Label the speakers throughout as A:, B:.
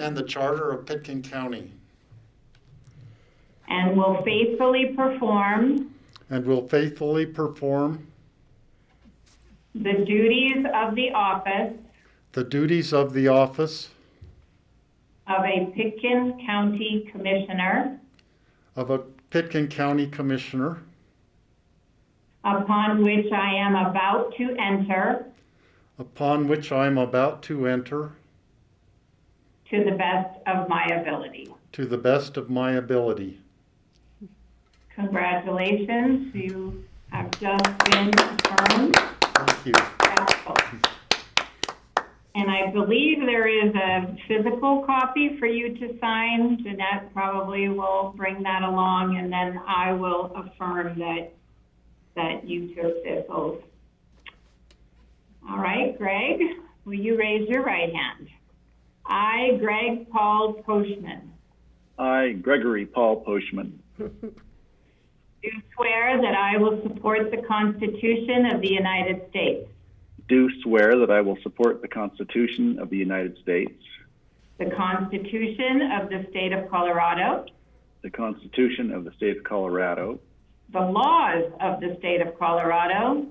A: and the Charter of Pitkin County,
B: and will faithfully perform
A: and will faithfully perform
B: the duties of the office
A: the duties of the office
B: of a Pickens County Commissioner
A: of a Pitkin County Commissioner,
B: upon which I am about to enter
A: upon which I am about to enter
B: to the best of my ability.
A: to the best of my ability.
B: Congratulations, you have just been confirmed.
A: Thank you.
B: And I believe there is a physical copy for you to sign. Jeanette probably will bring that along, and then I will affirm that, that you took this oath. All right, Greg, will you raise your right hand? I, Greg Paul Postman,
C: I, Gregory Paul Poshman,
B: do swear that I will support the Constitution of the United States,
C: do swear that I will support the Constitution of the United States,
B: the Constitution of the State of Colorado,
C: the Constitution of the State of Colorado,
B: the laws of the State of Colorado,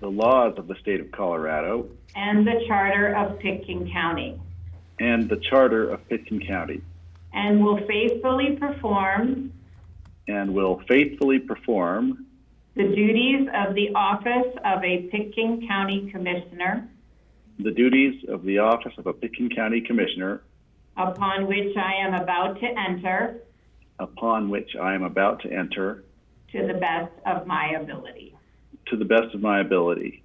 C: the laws of the State of Colorado,
B: and the Charter of Pitkin County,
C: and the Charter of Pitkin County,
B: and will faithfully perform
C: and will faithfully perform
B: the duties of the office of a Pitkin County Commissioner,
C: the duties of the office of a Pitkin County Commissioner
B: upon which I am about to enter,
C: upon which I am about to enter
B: to the best of my ability.
C: to the best of my ability.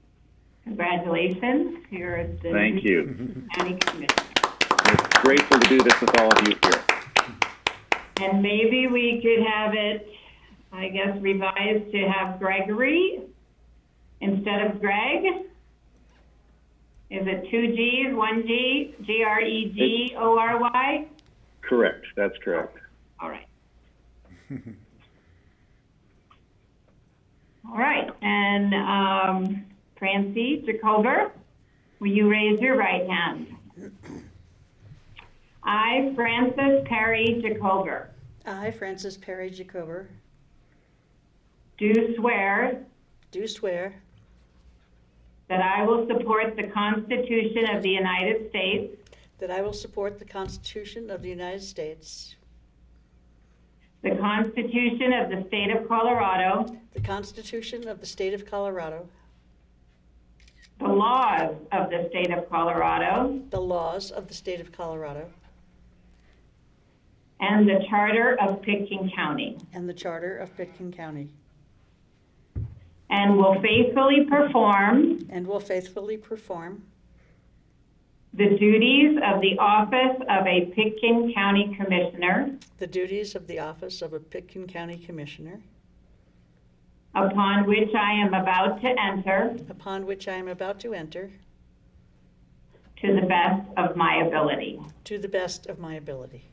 B: Congratulations, you're the
C: Thank you.
B: County Commissioner.
C: Grateful to do this with all of you here.
B: And maybe we could have it, I guess, revised to have Gregory instead of Greg. Is it two G's, one G, G R E G O R Y?
C: Correct, that's correct.
B: All right. All right, and um, Francie Jacober, will you raise your right hand? I, Frances Perry Jacober.
D: I, Francis Perry Jacober,
B: Do swear
D: do swear
B: that I will support the Constitution of the United States,
D: that I will support the Constitution of the United States,
B: the Constitution of the State of Colorado,
D: the Constitution of the State of Colorado,
B: the laws of the State of Colorado,
D: the laws of the State of Colorado,
B: and the Charter of Pitkin County,
D: and the Charter of Pitkin County,
B: and will faithfully perform
D: and will faithfully perform
B: the duties of the office of a Pitkin County Commissioner
D: the duties of the office of a Pitkin County Commissioner,
B: upon which I am about to enter
D: upon which I am about to enter,
B: to the best of my ability.
D: to the best of my ability.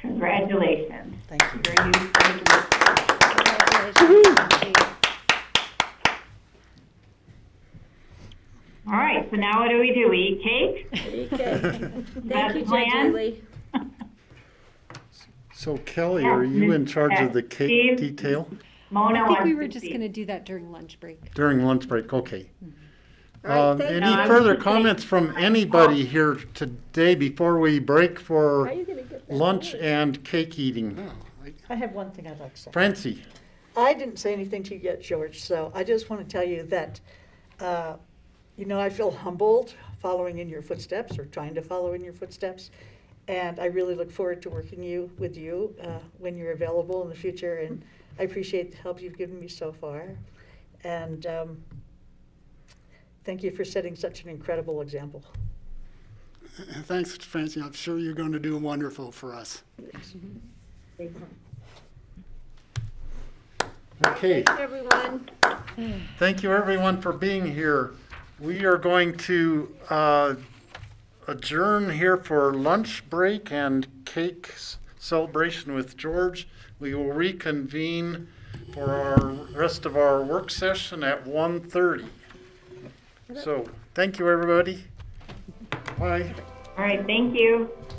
B: Congratulations.
D: Thank you.
B: You're used to it. All right, so now what do we do? We eat cake?
E: Okay. Thank
B: Best
E: you, Judge
B: plan?
E: Julie.
A: So Kelly, are you in charge of the cake
B: Steve?
A: detail?
B: Mona
F: Oh, I
B: wants
F: think we were
B: to
F: just
B: speak.
F: going to do that during lunch break.
A: During lunch break, okay.
E: right,
A: Um,
E: thank
B: you. No,
A: Any
B: I'm
A: further
B: just
A: comments from anybody here today before we break for lunch and cake eating?
B: Oh.
D: I have one thing I'd like to say.
A: Francie?
D: I didn't say anything to you yet, George, so I just want to tell you that, uh, you know, I feel humbled following in your footsteps or trying to follow in your footsteps. And I really look forward to working you with you uh, when you're available in the future. And I appreciate the help you've given me so far. And um, thank you for setting such an incredible example.
G: Thanks, Francie. I'm sure you're going to do wonderful for us.
A: Okay,
E: Everyone,
A: thank you everyone for being here. We are going to uh, adjourn here for lunch break and cake s- celebration with George. We will reconvene for our rest of our work session at 1:30. So, thank you, everybody. Bye.
B: All right, thank you.